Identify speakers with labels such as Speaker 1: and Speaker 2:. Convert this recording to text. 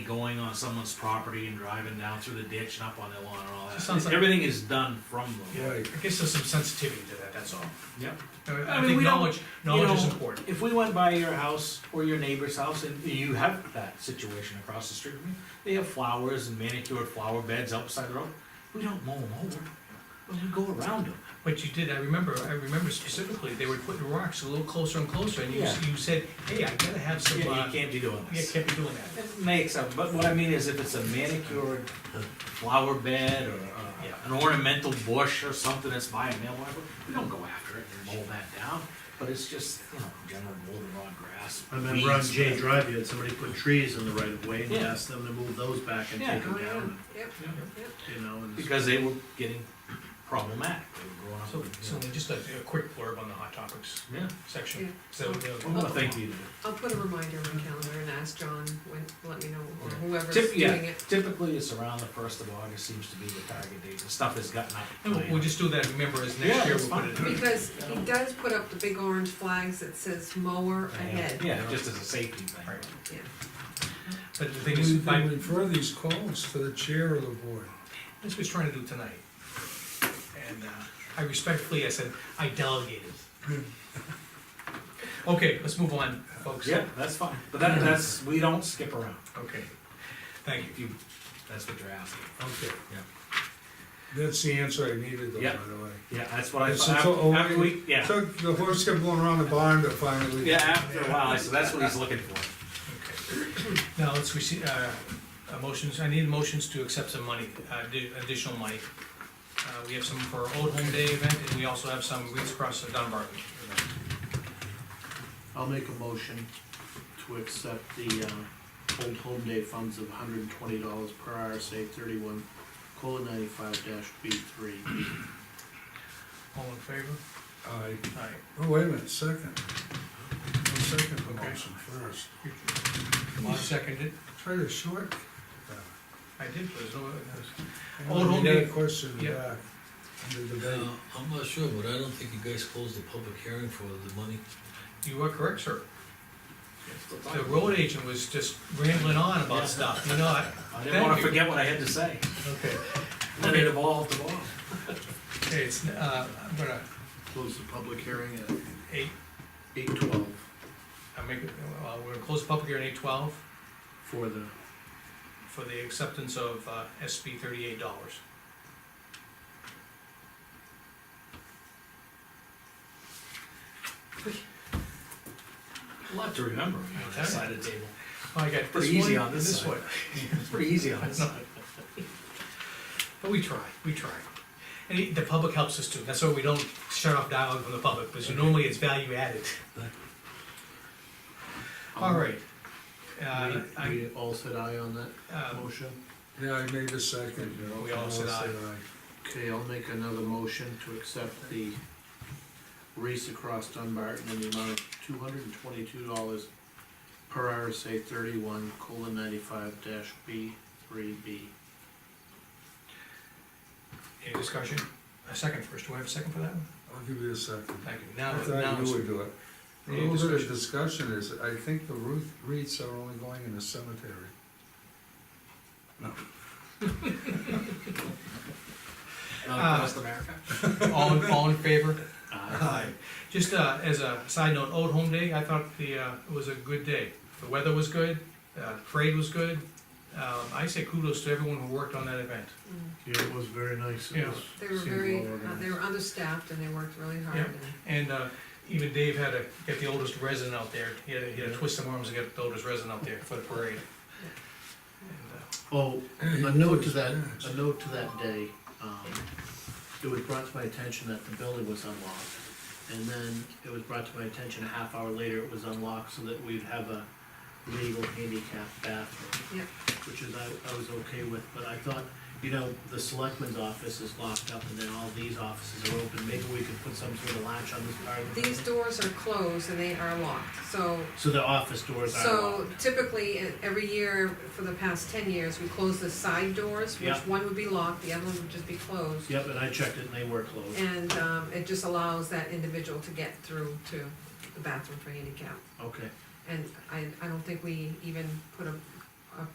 Speaker 1: going on someone's property and driving down through the ditch and up on their lawn and all
Speaker 2: Sounds
Speaker 1: that.
Speaker 2: like-
Speaker 1: Everything is done from them.
Speaker 3: Right.
Speaker 2: I guess there's some sensitivity to that, that's all.
Speaker 1: Yep. I
Speaker 2: I
Speaker 1: mean,
Speaker 2: think
Speaker 1: we don't-
Speaker 2: knowledge, knowledge is
Speaker 1: know,
Speaker 2: important.
Speaker 1: If we went by your house or your neighbor's house and you have that situation across the street, from you, they have flowers and manicured flower beds outside the road, we don't mow them over. But we go around them.
Speaker 2: But you did, I remember, I remember specifically, they were putting rocks a little closer and closer, and you, s-
Speaker 1: Yeah.
Speaker 2: you said, hey, I gotta have some,
Speaker 1: Yeah,
Speaker 2: uh,
Speaker 1: you can't be doing
Speaker 2: yeah,
Speaker 1: this.
Speaker 2: can't be doing that.
Speaker 1: It makes up, but what I mean is if it's a manicured flower bed or uh,
Speaker 2: Yeah.
Speaker 1: an ornamental bush or something that's by a mailbox, we don't go after it and mow that down. But it's just, you know, general mold and on grass.
Speaker 4: I remember on
Speaker 1: weeds.
Speaker 4: Jay Drive, you had somebody put trees in the right of way and you
Speaker 1: Yeah.
Speaker 4: asked them to move those back and
Speaker 1: Oh, Yeah,
Speaker 4: take them
Speaker 1: go ahead.
Speaker 4: down,
Speaker 5: Um, Yep,
Speaker 1: Yeah.
Speaker 5: yep.
Speaker 4: you know, and.
Speaker 1: Because they were getting problematic, they were growing up.
Speaker 2: So,
Speaker 1: with, you
Speaker 2: so
Speaker 1: know,
Speaker 2: just a, a quick blurb on the hot topics
Speaker 1: Yeah.
Speaker 5: Yeah.
Speaker 2: section, so,
Speaker 1: Well,
Speaker 2: uh,
Speaker 1: no, thank you.
Speaker 5: I'll put a reminder on my calendar and ask John when, let me know, or whoever's
Speaker 1: Tip- yeah.
Speaker 5: doing it.
Speaker 1: Typically, it's around the first of August seems to be the target date, the stuff has gotten out. of
Speaker 2: and we'll,
Speaker 1: hand.
Speaker 2: we'll just do that, remember, as
Speaker 1: Yeah,
Speaker 2: next year
Speaker 1: that's
Speaker 2: we'll put it in.
Speaker 5: Because he does put up the big orange flags that says mower ahead.
Speaker 1: Yeah, just as a safety thing.
Speaker 2: Right.
Speaker 5: Yeah.
Speaker 2: But the thing is,
Speaker 3: We
Speaker 2: by,
Speaker 3: can refer these calls to the chair of the board.
Speaker 2: That's what he's trying to do tonight. And uh, I respectfully, I said, I delegated. Okay, let's move on, folks.
Speaker 1: Yeah, that's fine, but that, that's, we don't skip around,
Speaker 2: Okay, thank you.
Speaker 1: if you, that's what you're asking.
Speaker 3: Okay.
Speaker 1: Yeah.
Speaker 3: That's the answer I needed though,
Speaker 1: Yeah.
Speaker 3: by the way.
Speaker 1: Yeah, that's what I,
Speaker 3: It's
Speaker 1: thought.
Speaker 3: a to-
Speaker 1: after we, yeah,
Speaker 3: Took the horse kept going around the barn to finally.
Speaker 1: yeah, after a while, so that's what he's looking for.
Speaker 2: Okay. Now, let's receive, uh, uh, motions, I need motions to accept some money, uh, addi- additional money. Uh, we have some for Old Home Day event, and we also have some Reeds Across the Dunbar. event.
Speaker 4: I'll make a motion to accept the, uh, Old Home Day funds of hundred and twenty dollars per RSA thirty-one, colon ninety-five dash B three.
Speaker 2: All in favor?
Speaker 3: I,
Speaker 2: Aye.
Speaker 3: oh, wait a minute, second. I'll second the
Speaker 2: Okay.
Speaker 3: motion first.
Speaker 2: Bob seconded,
Speaker 3: Try to short.
Speaker 2: I did, there's no,
Speaker 3: I
Speaker 2: Oh, don't
Speaker 3: got a
Speaker 2: be-
Speaker 3: question
Speaker 2: yeah.
Speaker 3: back under
Speaker 6: Uh,
Speaker 3: debate.
Speaker 6: I'm not sure, but I don't think you guys closed the public hearing for the money.
Speaker 2: you are correct, sir. The road agent was just rambling on about stuff, you know, I,
Speaker 1: I didn't wanna
Speaker 2: Thank you.
Speaker 1: forget what I had to say,
Speaker 2: okay,
Speaker 1: then it evolved, evolved.
Speaker 2: okay, it's, uh, I'm gonna,
Speaker 4: Close the public hearing at
Speaker 2: eight,
Speaker 4: eight twelve
Speaker 2: I make, uh, we're gonna close the public hearing at eight twelve
Speaker 4: for the, um,
Speaker 2: for the acceptance of, uh, SB thirty-eight dollars.
Speaker 1: A lot to remember on the other side of the table,
Speaker 2: I got
Speaker 1: Pretty
Speaker 2: this
Speaker 1: easy
Speaker 2: one,
Speaker 1: on
Speaker 2: and
Speaker 1: this
Speaker 2: this
Speaker 1: side.
Speaker 2: one,
Speaker 1: it's pretty easy on this side.
Speaker 2: but we try, we try. And it- the public helps us too, that's why we don't shut off dialogue from the public, because normally it's value added. All right. Uh,
Speaker 4: Um, We-
Speaker 2: I,
Speaker 4: We all said aye on that
Speaker 2: uh,
Speaker 4: motion?
Speaker 3: Yeah, I made a second. you know,
Speaker 2: We all said aye.
Speaker 4: Okay, I'll make another motion to accept the race across Dunbarton in the amount of two hundred and twenty-two dollars per RSA thirty-one colon ninety-five dash B three B.
Speaker 2: any discussion? A second first, do I have a second for that one?
Speaker 3: I'll give you a second.
Speaker 2: Thank you,
Speaker 3: I
Speaker 2: now, now.
Speaker 3: thought
Speaker 2: it's-
Speaker 3: you would do it. A
Speaker 2: Any
Speaker 3: little bit of
Speaker 2: discussion?
Speaker 3: discussion is, I think the Ruth Reeds are only going in the cemetery.
Speaker 1: Uh,
Speaker 2: Uh,
Speaker 1: Across America.
Speaker 2: All, in- all in favor? Aye. Just, uh, as a side note, Old Home Day, I thought the, uh, it was a good day. The weather was good, uh, parade was good. Um, I say kudos to everyone who worked on that event.
Speaker 5: Mm.
Speaker 4: Yeah, it was very nice. It
Speaker 2: Yeah.
Speaker 4: was-
Speaker 5: They were
Speaker 4: seemed
Speaker 5: very,
Speaker 4: well
Speaker 5: uh,
Speaker 4: organized.
Speaker 5: they were understaffed and they worked really hard.
Speaker 2: Yeah. And,
Speaker 5: and-
Speaker 2: uh, even Dave had to get the oldest resident out there. He had to, he had to twist some arms to get the oldest resident out there for the parade. And, uh,
Speaker 4: Oh, a note to that, a note to that day, um, it was brought to my attention that the building was unlocked. And then it was brought to my attention a half hour later, it was unlocked so that we'd have a legal handicap bathroom.
Speaker 5: Yep.
Speaker 4: Which is, I, I was okay with, but I thought, you know, the selectman's office is locked up and then all these offices are open, maybe we could put some sort of latch on this part. of the
Speaker 5: These
Speaker 4: building.
Speaker 5: doors are closed and they are locked, so,
Speaker 4: So the office doors are
Speaker 5: so
Speaker 4: locked.
Speaker 5: typically, e- every year, for the past ten years, we close the side doors, which
Speaker 4: Yeah.
Speaker 5: one would be locked, the other one would just be closed.
Speaker 4: Yep, and I checked it and they were closed.
Speaker 5: And, um, it just allows that individual to get through to the bathroom for handicap.
Speaker 4: Okay,
Speaker 5: And I, I don't think we even put a